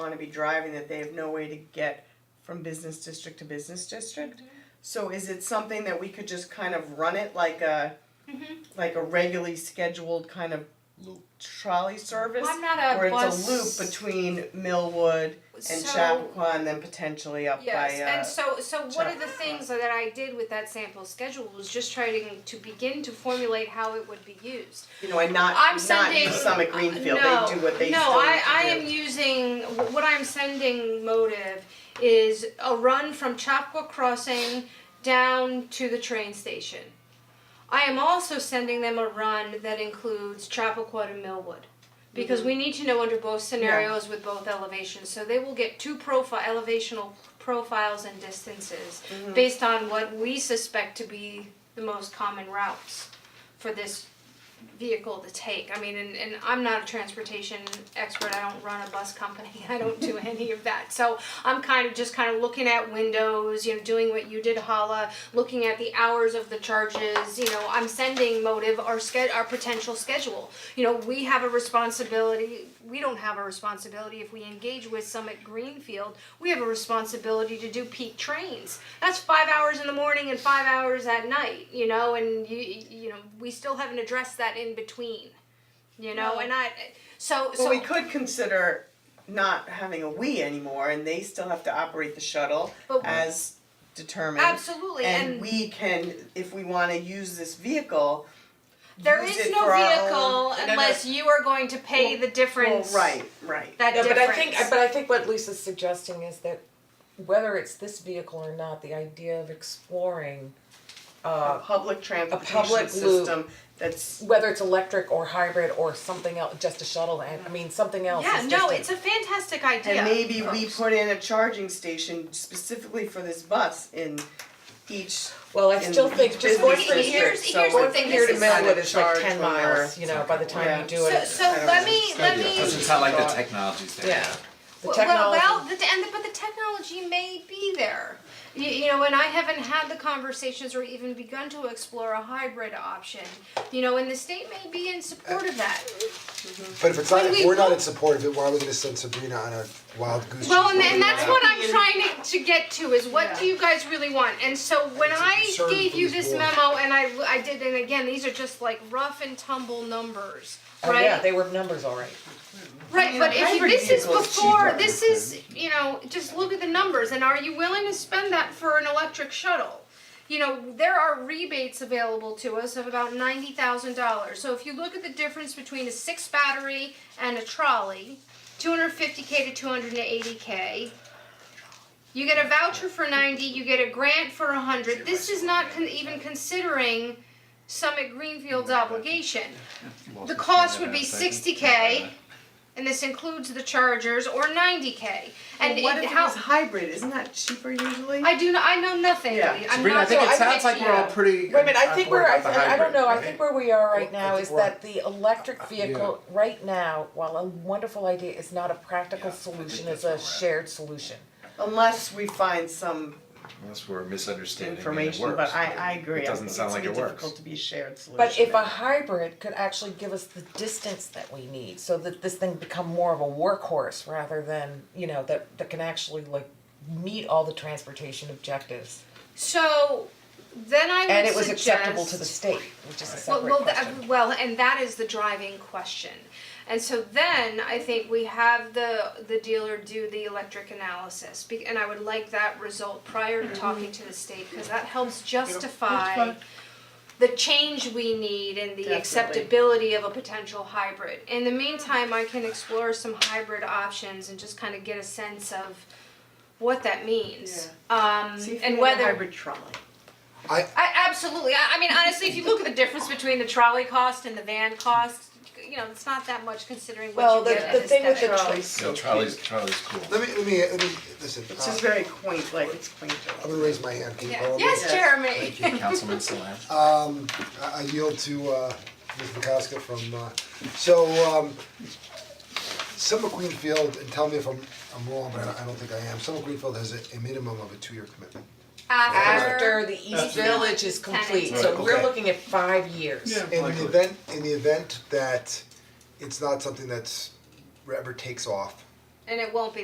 want to be driving that they have no way to get from business district to business district. Mm-hmm. So is it something that we could just kind of run it like a Mhm. like a regularly scheduled kind of Loop. trolley service? I'm not a where bus. it's a loop between Millwood and so, Chappaqua and then potentially up Yes, by uh, and so so one of the Chappaqua. things that I did with that sample schedule was just trying to begin to formulate how it would be used. you know, and not I'm not sending- Uh, East Summit Greenfield. no, they do what they no, still I, need to I do. am using wh- what I'm sending motive is a run from Chapua Crossing down to the train station. I am also sending them a run that includes Chappaqua to Millwood. Because Mm-hmm. we need to know under both scenarios with both elevations, so they will get two profile elevational profiles and distances Mm-hmm. based on what we suspect to be the most common routes for this vehicle to take. I mean, and, and I'm not a transportation expert. I don't run a bus company. I don't do any of that. So I'm kind of just kind of looking at windows, you know, doing what you did, Hala, looking at the hours of the charges. You know, I'm sending Motive our sched our potential schedule. You know, we have a responsibility. We don't have a responsibility if we engage with Summit Greenfield. We have a responsibility to do peak trains. That's five hours in the morning and five hours at night. You know, and you you know we still haven't addressed that in between. You know, and I so Well, so we could consider not having a we anymore, and they still have to operate the shuttle But- as determined. absolutely And, we can, if we want to use this vehicle, There use is it no for our vehicle own- no, no. unless you are going to pay the Well, difference. right, right. That No, but difference. I think, but I think what Lisa's suggesting is that whether it's this vehicle or not, the idea of exploring, a uh, public transportation public loop. system that's whether it's electric or hybrid or something else, just a shuttle, and, I mean, something else yeah, is no, just a- it's a fantastic idea. and maybe we put in a charging station specifically for this bus in each. Well, I in still think each just business going Here's- from district, here, here's- so here's the if going we from thing, here to this is- decide Millwood is like charge ten when we're- miles, you know, by the time you do So, it. so I don't let know. me let me. Doesn't sound like the technology's there. Yeah. The Well, technology. Well, well the, and the, but the technology may be there. You, you know, and I haven't had the conversations or even begun to explore a hybrid option. You know, and the state may be in support of that. But if it's not, Wait, if wait, we're not what? in support of it, why are we gonna send Sabrina on a wild goose chase? Well, and, and that's what I'm trying to, to get to is what do you guys really want? And so when It's a I concern gave for you these this boards. memo and I, I did, and again, these are just like rough and tumble numbers, Oh, right? yeah, they were numbers all right. Right, but if you, hybrid this is vehicle is before, cheaper. this is, you know, just look at the numbers and are you willing to spend that for an electric shuttle? You know, there are rebates available to us of about ninety thousand dollars. So if you look at the difference between a six battery and a trolley, two hundred fifty K to two hundred and eighty K. You get a voucher for ninety, you get a grant for a hundred. This is not con- even considering Summit Greenfield's obligation. The cost would be sixty K and this includes the chargers or ninety K. And Well, what it- if how it was hybrid? Isn't that cheaper usually? I do not, I know nothing. Yeah. I'm Sabrina, I not think so- it sounds like we're all yeah. pretty. Wait a minute, I on think board we're, I, with the I don't hybrid, know, I right? think where we are right now think is we're- that the electric vehicle, right now, while a wonderful idea, is not a practical solution, it's a shared solution. Unless we find some Unless we're misunderstanding and it information, but works, I, I agree. It doesn't sound like it I think it's gonna be works. difficult to be a shared solution. But if a hybrid could actually give us the distance that we need, so that this thing become more of a workhorse rather than, you know, that, that can actually like meet all the transportation objectives. So then I would And it was acceptable to the suggest- state, which is a Well, separate well, that- question. well, and that is the driving question. And so then I think we have the the dealer do the electric analysis, be- and I would like that result prior to talking to the state because that helps justify the change we need and the Definitely. acceptability of a potential hybrid. In the meantime, I can explore some hybrid options and just kind of get a sense of what that means. Um, See if we and have a whether hybrid trolley. I, I absolutely. I, I mean, honestly, if you look at the difference between the trolley cost and the van cost, you know, it's not that much considering what Well, you the- get the as thing with the aesthetic. trolley- Yeah, trolley's, trolley's cool. let me, let me, let me, listen, It's just uh, very quaint, like it's quaint. I'm gonna raise my hand, can you Yeah. follow me? Yes, Yes. Jeremy. Thank you, Councilman Salam. Um, I I yield to uh, Ms. McCosker from, uh, so, um, Summer Greenfield, and tell me if I'm, I'm wrong, but I I don't think I am, Summer Greenfield has a, a minimum of a two-year commitment. After the East Village is Tenant. complete, Right, so we're okay. looking at five years. In the event, in the event that it's not something that's, ever takes off, and it won't be